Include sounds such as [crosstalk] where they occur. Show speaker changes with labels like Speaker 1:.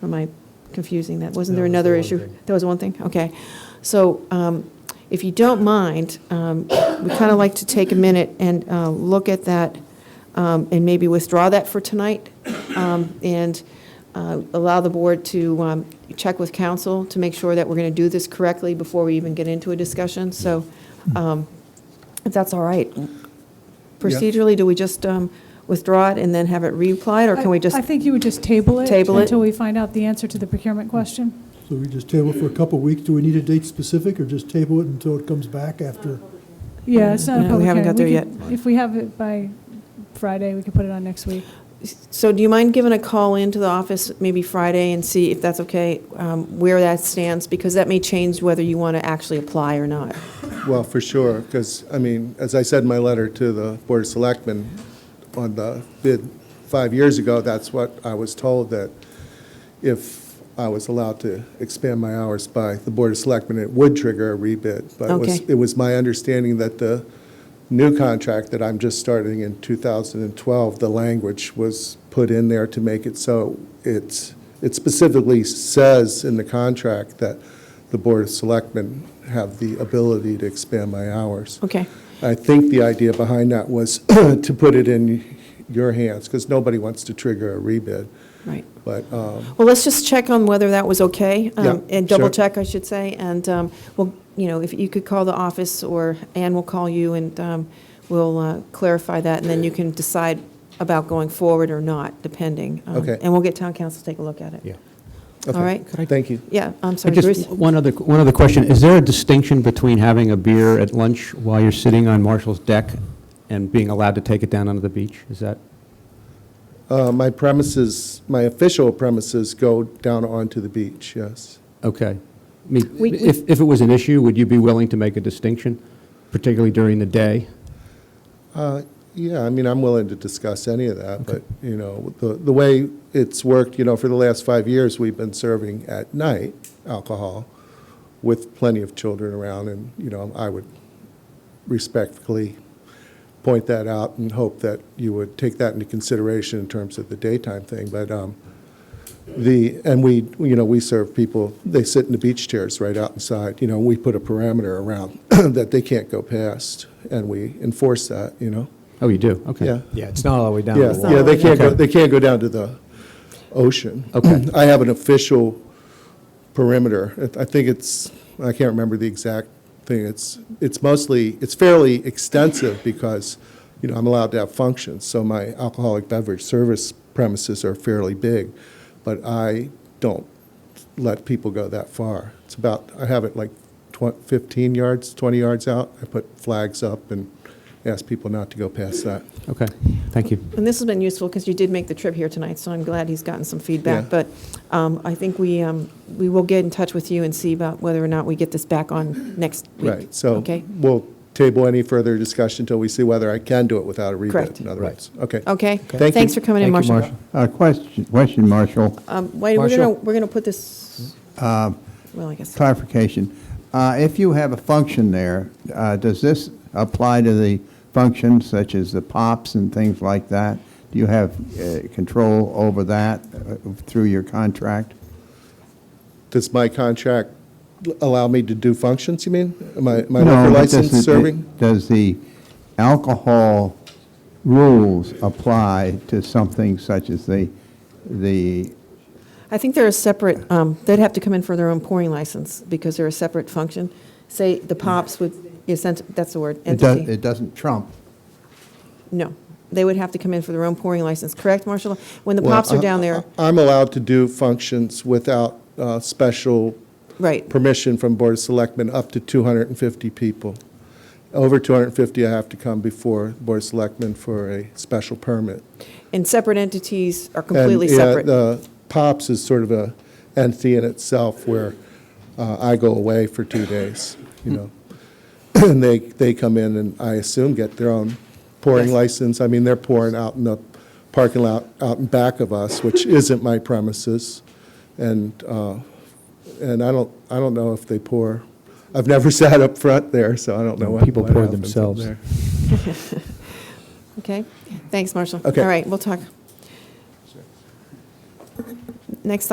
Speaker 1: Or am I confusing that? Wasn't
Speaker 2: That
Speaker 1: there
Speaker 2: was the
Speaker 1: another
Speaker 2: one
Speaker 1: issue?
Speaker 2: thing.
Speaker 1: That was one thing? Okay. So um, if you don't mind, um, we kind of like to take a minute and uh, look at that um, and maybe withdraw that for tonight um, and uh, allow the board to um, check with council to make sure that we're going to do this correctly before we even get into a discussion. So um, if that's all right, procedurally, do we just um, withdraw it and then have it reapplied, or can we just?
Speaker 3: I think you would just table it.
Speaker 1: Table it?
Speaker 3: Until we find out the answer to the procurement question.
Speaker 4: So we just table for a couple of weeks? Do we need a date specific or just table it until it comes back after?
Speaker 3: Yeah, it's not a
Speaker 1: Yeah, we
Speaker 3: public
Speaker 1: haven't
Speaker 3: hearing.
Speaker 1: got there
Speaker 3: could- If we have it by Friday, we could put it on next week.
Speaker 1: So do you mind giving a call into the office maybe Friday and see if that's okay, um, where that stands? Because that may change whether you want to actually apply or not.
Speaker 5: Well, for sure, because, I mean, as I said in my letter to the Board of Selectmen on the bid five years ago, that's what I was told, that if I was allowed to expand my hours by the Board of Selectmen, it would trigger a rebid. But it was,
Speaker 1: Okay.
Speaker 5: it was my understanding that the new contract that I'm just starting in 2012, the language was put in there to make it so it's, it specifically says in the contract that the Board of Selectmen have the ability to expand my hours.
Speaker 1: Okay,
Speaker 5: I think the idea behind that was [clears throat] to put it in your hands, because nobody wants to trigger a rebid,
Speaker 1: right.
Speaker 5: but, um,
Speaker 1: Well, let's just check on whether that was okay. um,
Speaker 5: Yeah,
Speaker 1: And double
Speaker 5: sure.
Speaker 1: check, I should say. And, um, well, you know, if you could call the office or Ann will call you and um, we'll uh, clarify that. And then you can decide about going forward or not, depending. Um,
Speaker 5: Okay.
Speaker 1: And we'll get town council to take a look at it.
Speaker 2: Yeah.
Speaker 1: All
Speaker 5: okay.
Speaker 1: right.
Speaker 2: Could I-
Speaker 5: Thank you.
Speaker 1: Yeah, I'm
Speaker 2: I
Speaker 1: sorry, Bruce.
Speaker 2: Just one other, one other question. Is there a distinction between having a beer at lunch while you're sitting on Marshall's deck and being allowed to take it down onto the beach? Is that,
Speaker 5: Uh, My premises, my official premises go down onto the beach, yes.
Speaker 2: okay. I mean,
Speaker 1: We- we-
Speaker 2: If, if it was an issue, would you be willing to make a distinction, particularly during the day?
Speaker 5: Uh, Yeah, I mean, I'm willing to discuss any of that, but, you know, the, the way it's worked, you know, for the last five years, we've been serving at night alcohol with plenty of children around, and, you know, I would respectfully point that out and hope that you would take that into consideration in terms of the daytime thing, but, um, the, and we, you know, we serve people, they sit in the beach chairs right out inside, you know, we put a parameter around [clears throat] that they can't go past, and we enforce that, you know?
Speaker 2: Oh, you do? Okay.
Speaker 5: Yeah.
Speaker 6: Yeah, it's not all the way down to
Speaker 5: Yeah,
Speaker 6: the
Speaker 5: yeah,
Speaker 6: water.
Speaker 5: they can't go,
Speaker 2: Okay.
Speaker 5: they can't go down to the
Speaker 6: [clears throat]
Speaker 5: ocean.
Speaker 2: Okay.
Speaker 5: [clears throat] I have an official perimeter. I- I think it's, I can't remember the exact thing. It's, it's mostly, it's fairly extensive because, you know, I'm allowed to have functions. So my alcoholic beverage service premises are fairly big, but I don't let people go that far. It's about, I have it like twen- 15 yards, 20 yards out. I put flags up and ask people not to go past that.
Speaker 2: Okay, thank you.
Speaker 1: And this has been useful because you did make the trip here tonight, so I'm glad he's gotten some
Speaker 5: Yeah.
Speaker 1: feedback. But um, I think we, um, we will get in touch with you and see about whether or not we get this back on next week.
Speaker 5: Right, so
Speaker 1: Okay,
Speaker 5: we'll table any further discussion until we see whether I can do it without a rebid.
Speaker 1: Correct.
Speaker 5: In other
Speaker 2: Right.
Speaker 5: words, okay.
Speaker 1: okay.
Speaker 5: you.
Speaker 1: Thanks for coming in,
Speaker 2: Thank you,
Speaker 1: Marshall.
Speaker 2: Marshall.
Speaker 7: Uh, Question, question, Marshall,
Speaker 1: Um, Wait, we're going to,
Speaker 6: Marshall.
Speaker 1: we're going to put this, well, I guess,
Speaker 7: clarification. Uh, If you have a function there, uh, does this apply to the functions such as the pops and things like that? Do you have uh, control over that uh, through your contract?
Speaker 5: Does my contract allow me to do functions, you mean? My my
Speaker 7: No,
Speaker 5: liquor
Speaker 7: but does
Speaker 5: license
Speaker 7: it-
Speaker 5: serving?
Speaker 7: Does the alcohol rules apply to something such as the, the
Speaker 1: I think they're a separate, um, they'd have to come in for their own pouring license because they're a separate function. Say, the POPs would, yes, that's that's the word,
Speaker 7: it does-
Speaker 1: entity.
Speaker 7: it doesn't trump
Speaker 1: No, they would have to come in for their own pouring license, correct, Marshall? When the
Speaker 5: Well, uh-huh.
Speaker 1: POPs are
Speaker 5: I-
Speaker 1: down there,
Speaker 5: I- I'm allowed to do functions without uh, special
Speaker 1: right.
Speaker 5: permission from Board of Selectmen up to 250 people. Over 250, I have to come before Board of Selectmen for a special permit.
Speaker 1: And separate entities are
Speaker 5: And,
Speaker 1: completely
Speaker 5: yeah,
Speaker 1: separate.
Speaker 5: the Pops is sort of a entity in itself where uh, I go away for two days, you know. [clears throat] And they, they come in and I assume get their own pouring license. I mean, they're pouring out in the parking lot out in back of us,
Speaker 1: [laughs]
Speaker 5: which isn't my premises. And, uh, and I don't, I don't know if they pour, I've never [laughs] sat up front there, so I don't know what
Speaker 6: People
Speaker 5: what
Speaker 6: pour
Speaker 5: happens up
Speaker 6: themselves.
Speaker 5: there.
Speaker 1: Okay, thanks, Marshall.
Speaker 5: Okay.
Speaker 1: All right, we'll talk. Next